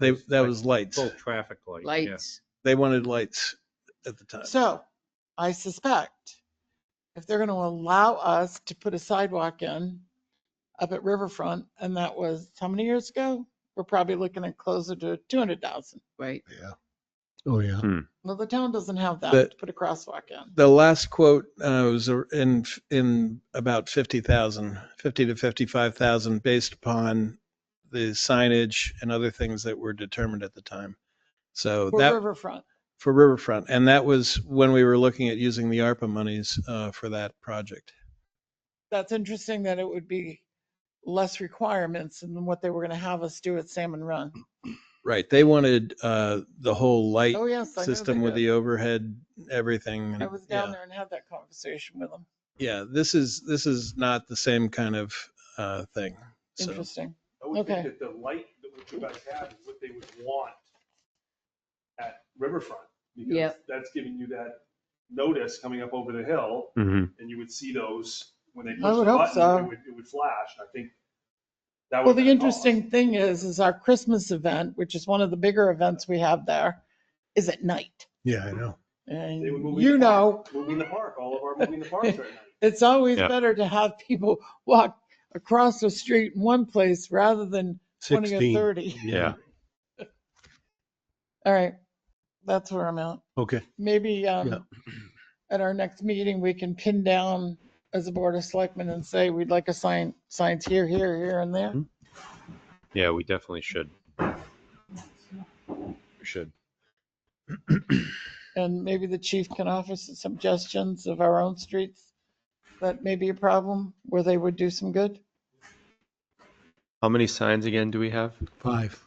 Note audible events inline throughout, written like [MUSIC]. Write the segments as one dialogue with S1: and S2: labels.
S1: They, that was lights.
S2: Full traffic light. yeah.
S3: lights.
S1: They wanted lights at the time.
S4: So I suspect if they're going to allow us to put a sidewalk in up at Riverfront, and that was how many years ago? We're probably looking at closer to 200,000.
S3: Right.
S5: Yeah. Oh, yeah.
S4: Well, the town doesn't have that
S1: But-
S4: to put a crosswalk in.
S1: The last quote uh, was a- in, in about 50,000, 50 to 55,000 based upon the signage and other things that were determined at the time. So
S4: For
S1: that.
S4: Riverfront.
S1: for Riverfront, and that was when we were looking at using the ARPA monies uh, for that project.
S4: That's interesting that it would be less requirements than what they were going to have us do at Salmon Run.
S1: Right, they wanted uh, the whole light
S4: Oh, yes. I know they
S1: system with
S4: did.
S1: the overhead, everything. and-
S4: I was
S1: yeah.
S4: down there and had that conversation with them.
S1: Yeah, this is, this is not the same kind of uh, thing. So,
S4: Interesting.
S6: I would think
S4: Okay.
S6: that the light that what you guys have is what they would want at Riverfront. because
S3: Yep.
S6: That's giving you that notice coming up over the hill
S2: Mhm.
S5: Mm-hmm.
S6: and you would see those when they push
S4: would
S6: the
S4: hope so.
S6: button, it would, it would flash. I think that
S4: Well,
S6: would.
S4: the interesting thing is, is our Christmas event, which is one of the bigger events we have there, is at night.
S5: Yeah, I know.
S4: And
S6: They were moving
S4: you
S6: the
S4: know,
S6: park. Moving the park, all of our moving the parks right
S2: [LAUGHS]
S6: now.
S4: it's always
S2: Yeah.
S4: better to have people walk across the street in one place rather than 20 or
S5: 16.
S4: 30.
S2: Yeah.
S4: All right. That's where I'm at.
S5: Okay.
S4: Maybe
S5: Yeah.
S4: um, at our next meeting, we can pin down as a board of selectmen and say, we'd like a sign, signs here, here, here and there.
S2: Yeah, we definitely should. We Should.
S4: And maybe the chief can offer some suggestions of our own streets that may be a problem where they would do some good.
S2: How many signs again do we have?
S5: Five,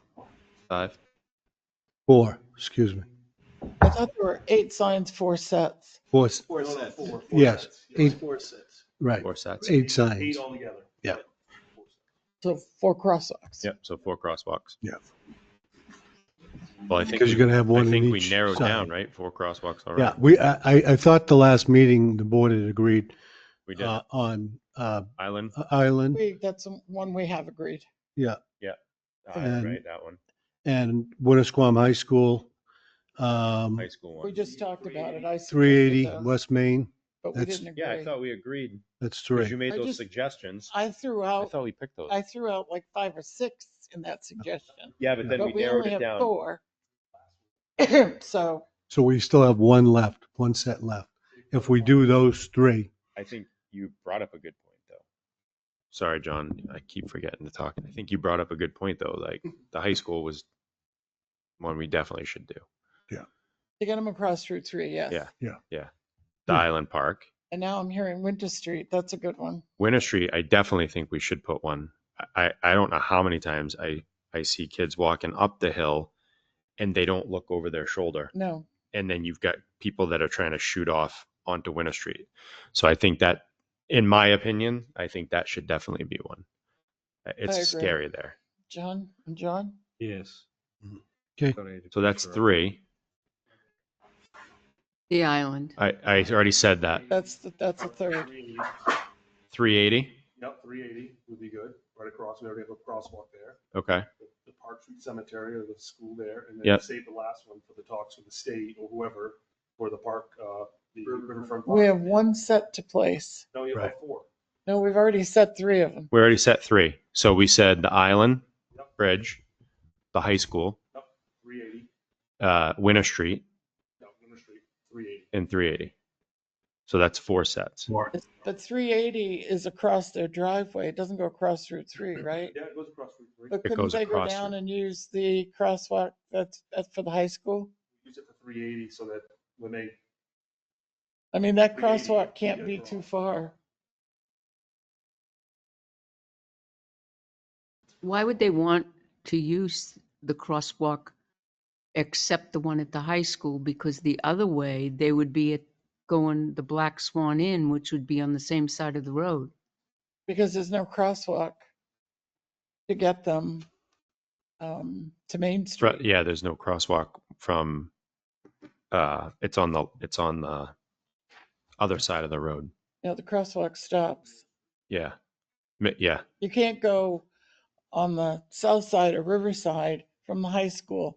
S2: Five?
S5: four, excuse me.
S4: I thought there were eight signs, four sets.
S5: Four, s-
S1: Four
S6: No, no,
S1: sets,
S6: four- four
S5: yes.
S6: sets, yeah.
S5: Eight,
S1: four sets.
S5: right.
S2: Four sets?
S5: Eight
S6: Eight
S5: signs.
S6: altogether.
S5: Yeah.
S4: So four crosswalks.
S2: Yep, so four crosswalks.
S5: Yeah.
S2: Well, I think,
S5: Because you're
S2: we-
S5: going to have
S2: I
S5: one in
S2: think we
S5: each
S2: narrowed down,
S5: sign.
S2: right? Four crosswalks already.
S5: Yeah, we, I, I I thought the last meeting, the board had agreed
S2: We did.
S5: uh, on uh,
S2: Island?
S5: Island
S4: We, that's one we have agreed.
S2: Island,
S5: and-
S2: Ah, right, that one.
S5: and Winnisquam High School, um,
S2: High school
S4: We
S2: one.
S4: just talked about it. I suggested
S5: 380
S4: those,
S5: West Main,
S4: But we
S5: that's-
S4: didn't
S2: Yeah, I
S4: agree.
S2: thought we agreed.
S5: that's
S2: Because you
S5: three.
S2: made
S4: I
S2: those
S4: just-
S2: suggestions.
S4: I threw
S2: I
S4: out,
S2: thought we picked those.
S4: I threw out like five or six in that suggestion,
S2: Yeah, but then we
S4: but we
S2: narrowed
S4: only
S2: it
S4: have
S2: down.
S4: four. [CLEARS THROAT] So
S5: So we still have one left, one set left. If we do those three,
S2: I think you brought up a good point, though. Sorry, John, I keep forgetting to talk. I think you brought up a good point, though. Like the high school was one we definitely should do.
S4: to get them across Route 3, yes.
S2: Yeah.
S5: Yeah.
S2: Yeah. The
S5: Hmm.
S2: Island Park,
S4: And now I'm hearing Winter Street. That's a good one.
S2: Winter Street. I definitely think we should put one. I I I don't know how many times I I see kids walking up the hill, and they don't look over their shoulder.
S4: No,
S2: and then you've got people that are trying to shoot off onto Winter Street. So I think that, in my opinion, I think that should definitely be one. Uh, It's
S4: agree.
S2: scary there.
S4: John, John?
S2: Yes.
S5: Okay.
S2: So that's three.
S3: The island.
S2: I, I already said that.
S4: That's, the that's a third.
S6: 380.
S2: 380.
S6: Yep, three eighty would be good, right across, we already have a crosswalk there.
S2: Okay.
S6: the- the Park Street Cemetery or the school there, and then
S2: Yep.
S6: save the last one for the talks with the state or whoever for the park, uh, the riverfront.
S4: We have
S6: Park.
S4: one set to place.
S6: No, you have
S5: Right.
S6: four.
S4: No, we've already set three of them.
S2: We already set three. So we said the Island
S6: Yep.
S2: Bridge, the high school,
S6: Three eighty,
S2: uh, Winter Street,
S6: no, Winter Street, three eighty.
S2: and 380. So that's four sets.
S4: But 380 is across their driveway. It doesn't go across Route 3, right?
S6: Yeah, it goes across Route three.
S4: But couldn't
S2: goes
S4: they go
S2: across
S4: down
S2: Route-
S4: and use the crosswalk that's, that's for the high school?
S6: Use it for three eighty so that when they,
S4: I mean, that
S6: 380,
S4: crosswalk can't
S6: yeah,
S4: be
S6: go
S4: too
S6: on.
S4: far.
S3: Why would they want to use the crosswalk except the one at the high school? Because the other way, they would be at going the Black Swan Inn, which would be on the same side of the road.
S4: because there's no crosswalk to get them um, to Main
S2: Fro-
S4: Street.
S2: Yeah, there's no crosswalk from, uh, it's on the, it's on the other side of the road.
S4: You know, the crosswalk stops.
S2: Yeah. Mi- Yeah.
S4: You can't go on the south side or Riverside from the high school.